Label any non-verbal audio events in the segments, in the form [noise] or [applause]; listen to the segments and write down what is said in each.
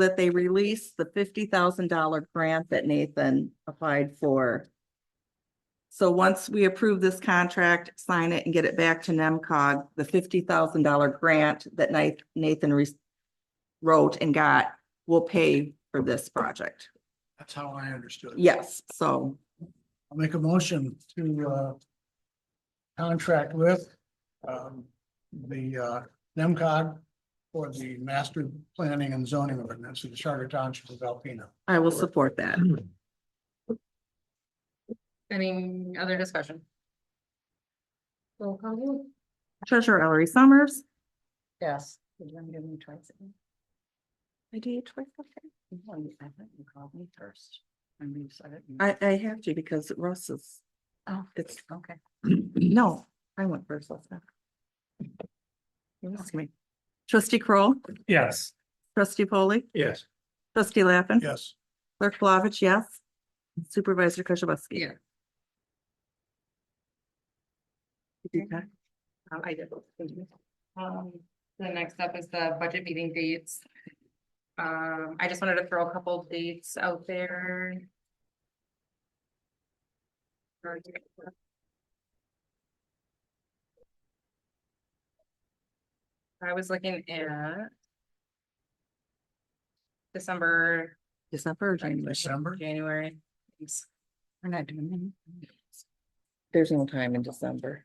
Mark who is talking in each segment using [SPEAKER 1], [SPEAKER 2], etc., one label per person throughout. [SPEAKER 1] that they release the fifty thousand dollar grant that Nathan applied for. So once we approve this contract, sign it and get it back to NEMCOG, the fifty thousand dollar grant that Ni- Nathan re- wrote and got will pay for this project.
[SPEAKER 2] That's how I understood. it.
[SPEAKER 1] Yes, so
[SPEAKER 2] I'll make a motion to, uh, contract with, um, the, uh, NEMCOG for the master planning and zoning ordinance of the Charter Township of Alpena.
[SPEAKER 1] I will support that.
[SPEAKER 3] Any other discussion? Roll call vote.
[SPEAKER 1] Treasurer Ellery Summers.
[SPEAKER 3] Yes. Did you want me to move twice?
[SPEAKER 1] I do it twice, okay.
[SPEAKER 3] No, you- I thought you called me first. And you said it.
[SPEAKER 1] I, I have to because Russ is,
[SPEAKER 3] Oh,
[SPEAKER 1] it's,
[SPEAKER 3] okay.
[SPEAKER 1] no, I went first last time. You asked me. Trustee Kroll,
[SPEAKER 4] Yes.
[SPEAKER 1] trustee Polly,
[SPEAKER 4] Yes.
[SPEAKER 1] trustee Lappin.
[SPEAKER 2] Yes,
[SPEAKER 1] Clerk Flavich, yes. Supervisor Kujabaski.
[SPEAKER 3] Yeah.
[SPEAKER 1] Okay.
[SPEAKER 3] Um, I did. thank you. Um, the next up is the budget meeting dates. Um, I just wanted to throw a couple of dates out there. I was looking at. December,
[SPEAKER 1] December or January?
[SPEAKER 2] December,
[SPEAKER 3] January. Oops. We're not doing them.
[SPEAKER 1] There's no time in December.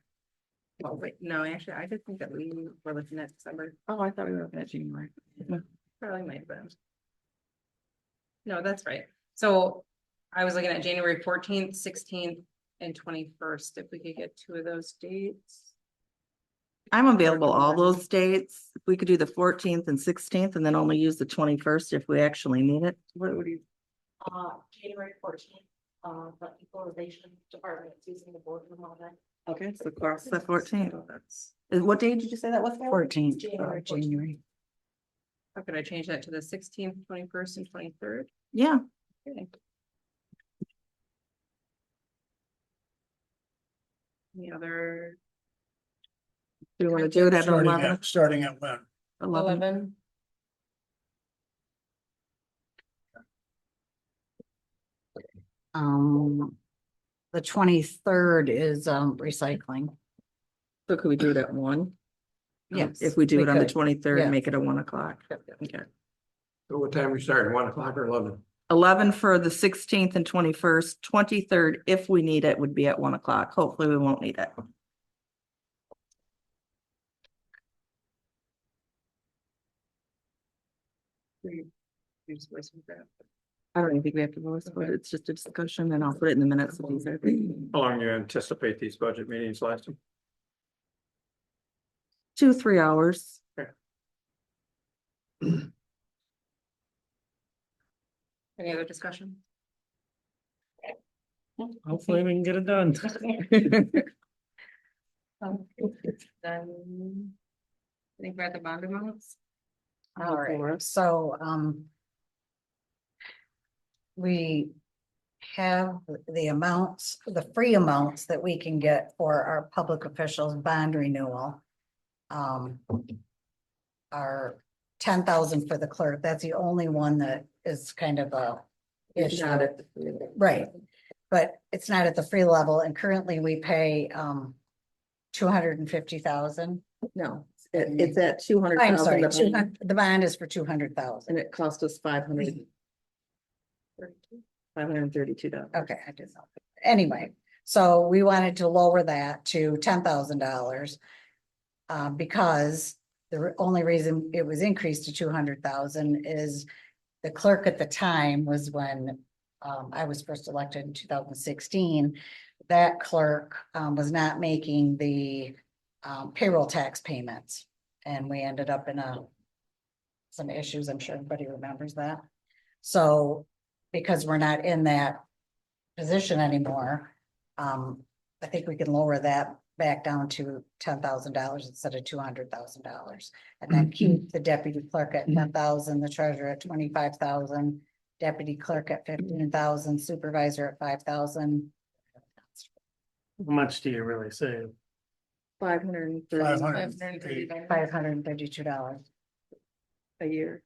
[SPEAKER 3] Oh, wait, no, actually, I did think that we were looking at December.
[SPEAKER 1] Oh, I thought we were looking at January.
[SPEAKER 3] Probably might have been. No, that's right. So I was looking at January fourteenth, sixteenth and twenty-first, if we could get two of those dates.
[SPEAKER 1] I'm available all those dates. We could do the fourteenth and sixteenth and then only use the twenty-first if we actually need it. What would you?
[SPEAKER 5] Uh, January fourteenth, uh, the equalization department is using the boardroom all day.
[SPEAKER 1] Okay, so cross the fourteenth.
[SPEAKER 3] So Oh, that's-
[SPEAKER 1] Uh, What day did you say that was? Fourteenth.
[SPEAKER 5] January 14th. January.
[SPEAKER 3] How could I change that to the sixteenth, twenty-first and twenty-third?
[SPEAKER 1] Yeah,
[SPEAKER 3] Any other
[SPEAKER 1] do you want to do it at
[SPEAKER 2] starting
[SPEAKER 1] eleven?
[SPEAKER 2] at, starting at when?
[SPEAKER 1] Eleven.
[SPEAKER 3] eleven?
[SPEAKER 6] Um, the twenty-third is, um, recycling.
[SPEAKER 1] So could we do it at one? Um,
[SPEAKER 6] Yes,
[SPEAKER 1] If we do
[SPEAKER 6] we
[SPEAKER 1] it on the
[SPEAKER 6] could.
[SPEAKER 1] twenty-third,
[SPEAKER 6] Yes.
[SPEAKER 1] make it a one o'clock. Okay.
[SPEAKER 7] So what time we starting? One o'clock or eleven?
[SPEAKER 1] Eleven for the sixteenth and twenty-first, twenty-third, if we need it, would be at one o'clock. Hopefully, we won't need it.
[SPEAKER 3] There's voice and graph.
[SPEAKER 1] I don't even think we have to vote, but
[SPEAKER 3] Okay.
[SPEAKER 1] it's just a discussion and I'll put it in the minutes. of [clears throat] these.
[SPEAKER 7] How long you anticipate these budget meetings lasting?
[SPEAKER 1] Two, three hours.
[SPEAKER 3] Any other discussion?
[SPEAKER 4] Hopefully we can get
[SPEAKER 3] [laughs]
[SPEAKER 4] it done.
[SPEAKER 3] Um, Then. I think we're at the bond amounts.
[SPEAKER 6] All right, so, um. We have the amounts, the free amounts that we can get for our public officials bond renewal. Um. Our ten thousand for the clerk, that's the only one that is kind of a. issue. Right, but it's not at the free level and currently we pay, um. Two hundred and fifty thousand.
[SPEAKER 1] No, it- it's at two hundred
[SPEAKER 6] I'm sorry,
[SPEAKER 1] thousand
[SPEAKER 6] 200 the bond is for two hundred thousand.
[SPEAKER 1] and it cost us five hundred, five hundred and thirty-two dollars.
[SPEAKER 6] Okay, I did not. Anyway, so we wanted to lower that to ten thousand dollars. uh, because the re- only reason it was increased to two hundred thousand is the clerk at the time was when um, I was first elected in two thousand sixteen. That clerk, um, was not making the, um, payroll tax payments. And we ended up in a, some issues, I'm sure everybody remembers that. So, because we're not in that position anymore, um, I think we can lower that back down to ten thousand dollars instead of two hundred thousand dollars. And then keep the deputy clerk at ten thousand, the treasurer at twenty-five thousand, deputy clerk at fifteen thousand, supervisor at five thousand.
[SPEAKER 4] How much do you really save?
[SPEAKER 1] Five hundred and
[SPEAKER 2] Five
[SPEAKER 1] thirty
[SPEAKER 2] hundred.
[SPEAKER 3] $530.
[SPEAKER 6] Five hundred and thirty-two dollars.
[SPEAKER 1] a year.